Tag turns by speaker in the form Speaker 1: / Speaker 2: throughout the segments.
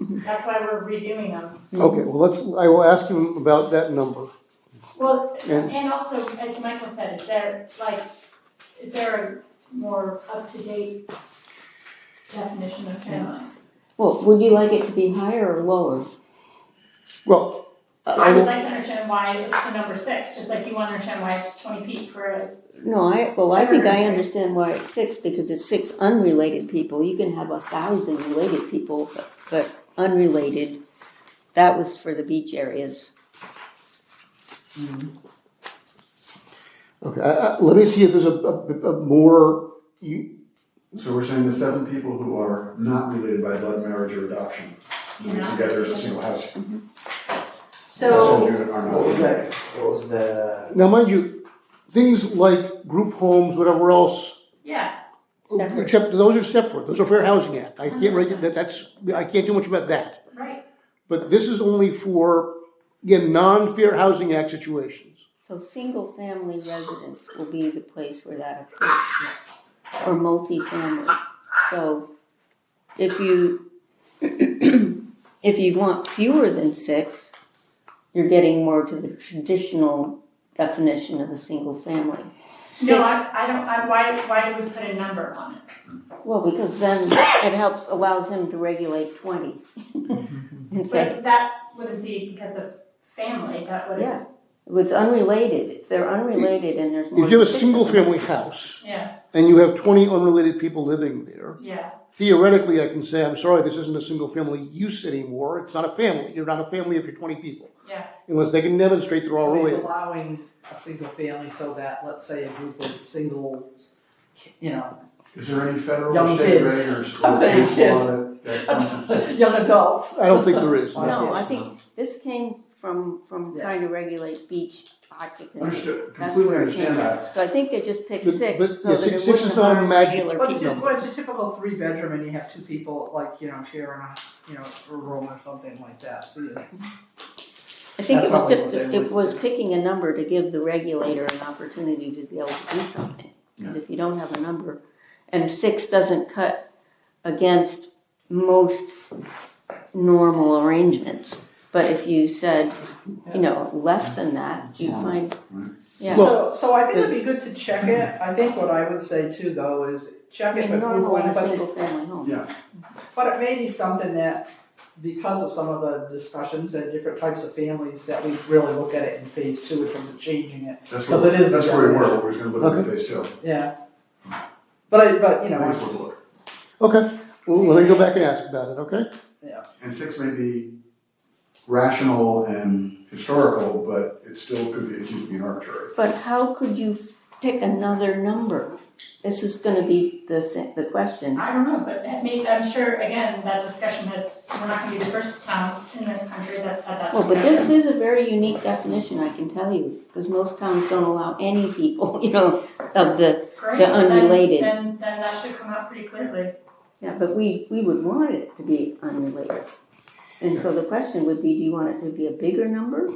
Speaker 1: That's why we're redoing them.
Speaker 2: Okay, well, let's, I will ask him about that number.
Speaker 1: Well,
Speaker 2: And-
Speaker 1: and also, as Michael said, is there, like, is there a more up-to-date definition of family?
Speaker 3: Well, would you like it to be higher or lower?
Speaker 2: Well,
Speaker 1: I
Speaker 2: I
Speaker 1: would
Speaker 2: will,
Speaker 1: like to understand why it's the number six, just like you want to understand why it's twenty feet for a
Speaker 3: No, I, well, I think I understand why it's six, because it's six unrelated people. You can have a thousand related people, but- but unrelated, that was for the beach areas.
Speaker 2: okay, I, I, let me see if there's a, a, a more, you,
Speaker 4: So we're saying the seven people who are not related by blood marriage or adoption, living
Speaker 1: Yeah.
Speaker 4: together as a single house, a
Speaker 5: So,
Speaker 4: sole unit are not.
Speaker 6: What was that? What was the?
Speaker 2: now mind you, things like group homes, whatever else,
Speaker 1: Yeah,
Speaker 3: Separate.
Speaker 2: except those are separate, those are Fair Housing Act. I can't regulate, that, that's, I can't do much about that.
Speaker 1: right.
Speaker 2: But this is only for, again, non-fair housing act situations.
Speaker 3: So single-family residence will be the place where that occurs, or multifamily. So if you, if you want fewer than six, you're getting more to the traditional definition of a single family. Six,
Speaker 1: No, I, I don't, I, why, why do we put a number on it?
Speaker 3: well, because then it helps, allows him to regulate twenty. And say,
Speaker 1: But that wouldn't be because of family, that would,
Speaker 3: yeah, if it's unrelated, if they're unrelated and there's more.
Speaker 2: If you have a
Speaker 3: than six-
Speaker 2: single-family house
Speaker 1: yeah,
Speaker 2: and you have twenty unrelated people living there,
Speaker 1: yeah,
Speaker 2: theoretically, I can say, I'm sorry, this isn't a single-family use anymore. It's not a family. You're not a family if you're twenty people.
Speaker 1: Yeah.
Speaker 2: Unless they can demonstrate they're all
Speaker 5: he's
Speaker 2: related.
Speaker 5: allowing a single family so that, let's say, a group of single, you know,
Speaker 4: Is there any federal
Speaker 5: Young
Speaker 4: or state
Speaker 5: kids.
Speaker 4: reg or state
Speaker 5: I'm
Speaker 4: law
Speaker 5: saying kids.
Speaker 4: that, that constitutes?
Speaker 5: young adults.
Speaker 2: I don't think there is. no.
Speaker 3: No, I think this came from, from
Speaker 5: Yeah.
Speaker 3: trying to regulate beach occupancy.
Speaker 4: Understood,
Speaker 3: That's
Speaker 4: completely
Speaker 3: where it came
Speaker 4: understand
Speaker 3: from.
Speaker 4: that.
Speaker 3: So I think they just picked
Speaker 2: But-
Speaker 3: six,
Speaker 2: but,
Speaker 3: so
Speaker 2: yeah,
Speaker 3: that
Speaker 2: six-
Speaker 3: it
Speaker 2: six
Speaker 3: wouldn't
Speaker 2: is not a
Speaker 3: harm
Speaker 2: magic-
Speaker 3: regular
Speaker 5: But it's
Speaker 3: people.
Speaker 5: but it's a typical three bedroom and you have two people, like, you know, sharing a, you know, a room or something like that, so you.
Speaker 3: I think
Speaker 6: That's
Speaker 3: it was
Speaker 6: probably
Speaker 3: just,
Speaker 6: what they
Speaker 3: it
Speaker 6: would
Speaker 3: was
Speaker 6: do.
Speaker 3: picking a number to give the regulator an opportunity to be able to do something. Because if you don't have a number, and six doesn't cut against most normal arrangements. But if you said, you know, less than that, you
Speaker 4: Yeah.
Speaker 3: find, yeah.
Speaker 5: So, so I think it'd be good to check it, I think what I would say too, though, is
Speaker 3: I
Speaker 5: check it,
Speaker 3: mean,
Speaker 5: but we
Speaker 3: normal in
Speaker 5: want,
Speaker 3: a
Speaker 5: but
Speaker 3: single family home.
Speaker 5: But it may be something that, because of some of the discussions and different types of families, that we really look at it in phase two in terms of changing it,
Speaker 4: That's
Speaker 5: 'Cause
Speaker 4: where,
Speaker 5: it is
Speaker 4: that's
Speaker 5: the
Speaker 4: where we were,
Speaker 5: definition.
Speaker 4: we was gonna look at phase two.
Speaker 5: yeah. But I, but, you
Speaker 4: I think it's
Speaker 5: know,
Speaker 4: worth a look.
Speaker 2: Okay, well, let me go back and ask about it, okay?
Speaker 4: And six may be rational and historical, but it still could be accused of being arbitrary.
Speaker 3: But how could you pick another number? This is gonna be the, sa- the question.
Speaker 1: I don't know, but that may, I'm sure, again, that discussion has, we're not gonna be the first town in the country that's had that
Speaker 3: Well, but this
Speaker 1: discussion.
Speaker 3: is a very unique definition, I can tell you, because most towns don't allow any people, you know, of the,
Speaker 1: Great,
Speaker 3: the
Speaker 1: then-
Speaker 3: unrelated.
Speaker 1: Then, then that should come out pretty clearly.
Speaker 3: yeah, but we, we would want it to be unrelated. And so the question would be, do you want it to be a bigger number?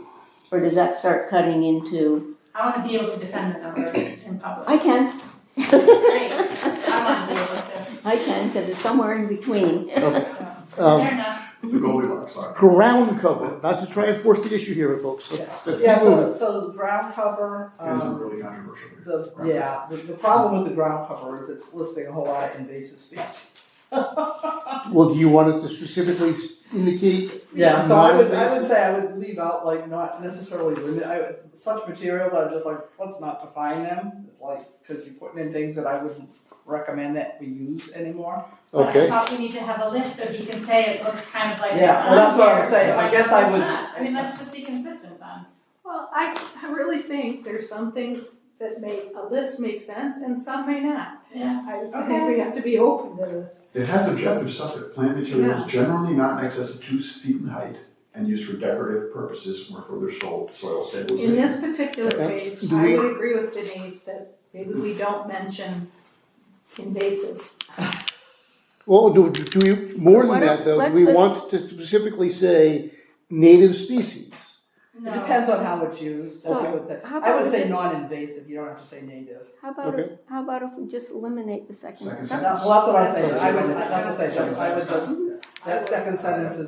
Speaker 3: Or does that start cutting into,
Speaker 1: I wanna be able to defend the number in public.
Speaker 3: I can.
Speaker 1: Great, I wanna be able to,
Speaker 3: I can, because it's somewhere in between.
Speaker 2: Um,
Speaker 1: fair enough,
Speaker 4: The Goldilocks slide.
Speaker 2: ground cover, not to try and force the issue here, folks.
Speaker 5: yeah,
Speaker 2: Let's- let's
Speaker 5: yeah,
Speaker 2: keep moving.
Speaker 5: so, so the ground cover,
Speaker 4: It isn't
Speaker 5: um,
Speaker 4: really controversial. here.
Speaker 5: the, yeah, the, the problem with the ground cover is it's listing a whole lot of invasive species.
Speaker 2: Well, do you want it to specifically s- indicate?
Speaker 5: Yeah, so I
Speaker 2: not
Speaker 5: would, I
Speaker 2: invasive?
Speaker 5: would say I would leave out like not necessarily limit, I would, such materials, I would just like, let's not define them. It's like, cause you're putting in things that I wouldn't recommend that we use anymore.
Speaker 1: but I
Speaker 2: Um, Okay,
Speaker 1: thought we need to have a list so he can say it looks kind of like.
Speaker 5: Yeah,
Speaker 1: it's
Speaker 5: well, that's what I'm
Speaker 1: unfair,
Speaker 5: saying.
Speaker 1: so
Speaker 5: I
Speaker 1: like,
Speaker 5: guess
Speaker 1: it's
Speaker 5: I would-
Speaker 1: not. I mean, let's just be consistent then.
Speaker 7: Well, I, I really think there's some things that may, a list makes sense and some may not.
Speaker 1: Yeah.
Speaker 7: I, I think we have to be open to this.
Speaker 4: It has objective stuff, it plant materials generally not in excess of two feet in height and used for decorative purposes or for their soil, soil
Speaker 7: In
Speaker 4: stabilization.
Speaker 7: this particular
Speaker 2: Okay.
Speaker 7: page,
Speaker 2: Do
Speaker 7: I
Speaker 2: we-
Speaker 7: would agree with Denise that maybe we don't mention invasives.
Speaker 2: well, do, do we, more
Speaker 3: Why
Speaker 2: than
Speaker 3: don't-
Speaker 2: that, though, do
Speaker 3: let's-
Speaker 2: we
Speaker 3: let's-
Speaker 2: want to specifically say native species?
Speaker 5: It
Speaker 1: No.
Speaker 5: depends on how it's used, I
Speaker 3: So,
Speaker 5: would say,
Speaker 3: how
Speaker 5: I would
Speaker 3: about
Speaker 5: say
Speaker 3: we-
Speaker 5: non-invasive, you don't have to say native.
Speaker 3: How about, if- how about if we just eliminate the second?
Speaker 4: Second
Speaker 3: number?
Speaker 5: Well, that's what I'm thinking, I would,
Speaker 4: That's-
Speaker 5: that's what I say, just, I would just, That second sentence is